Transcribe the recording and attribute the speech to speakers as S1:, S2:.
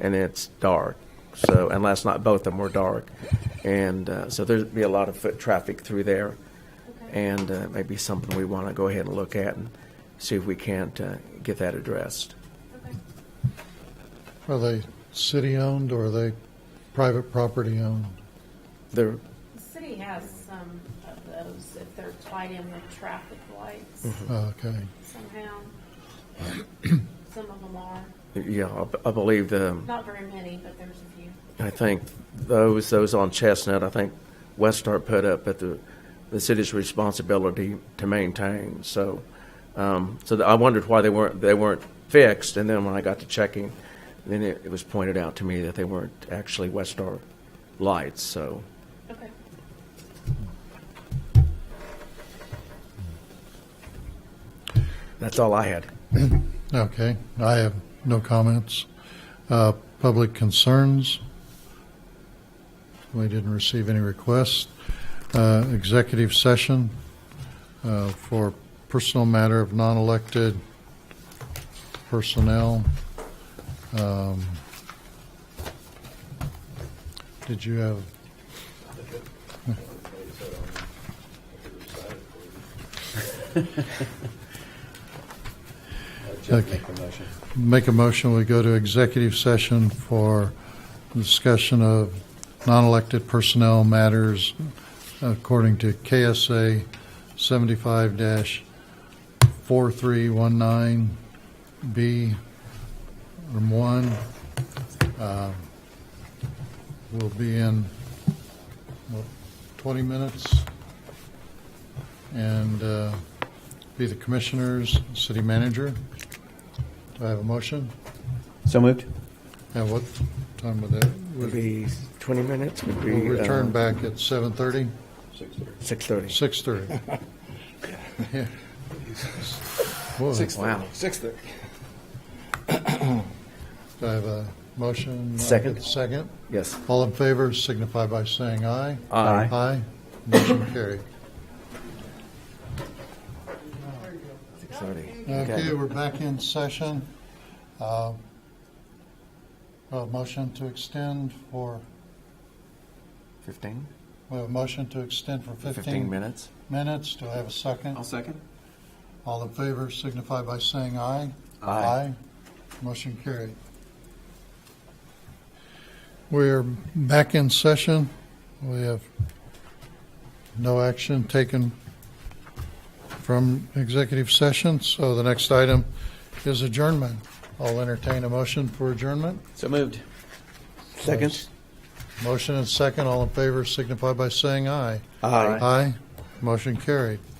S1: and it's dark. So, and last night both of them were dark. And uh, so there'd be a lot of foot traffic through there. And uh, maybe something we want to go ahead and look at and see if we can't uh, get that addressed.
S2: Are they city-owned or are they private property-owned?
S1: There,
S3: The city has some of those, if they're tied in with traffic lights
S2: Oh, Okay.
S3: somehow. Some of them are,
S1: yeah, I b- I believe the, um,
S3: not very many, but there's a few.
S1: I think those, those on Chestnut, I think Westart put up at the, the city's responsibility to maintain. So, um, so I wondered why they weren't, they weren't fixed. And then when I got to checking, then it, it was pointed out to me that they weren't actually Westart lights. So,
S3: Okay.
S1: That's all I had.
S2: Okay, I have no comments. Uh, Public concerns? We didn't receive any requests. Uh, Executive session uh, for personal matter of non-elected personnel. Um, Did you have,
S4: Just make the motion.
S2: make a motion, we go to executive session for discussion of non-elected personnel matters according to KSA 75-4319B, room one. Uh, We'll be in, what, 20 minutes? And uh, be the commissioners, city manager. Do I have a motion?
S4: So moved?
S2: And what time would that,
S1: Would be 20 minutes, would be. uh,
S2: we'll return back at 7:30?
S1: 6:30.
S2: 6:30. Yeah. Boy,
S1: Wow.
S2: Do I have a motion?
S1: Second.
S2: Second.
S1: Yes.
S2: All in favor signify by saying aye.
S1: Aye.
S2: Aye. Motion carried.
S1: 6:30.
S2: Okay, we're back in session. Uh, Well, motion to extend for,
S1: 15?
S2: we have a motion to extend for
S1: 15
S2: 15
S1: minutes?
S2: minutes. Do I have a second?
S5: second.
S2: All in favor signify by saying aye.
S1: Aye.
S2: Motion carried. We're back in session. We have no action taken from executive session, so the next item is adjournment. I'll entertain a motion for adjournment.
S5: So moved. Second.
S2: Motion and second, all in favor signify by saying aye. Aye. Motion carried.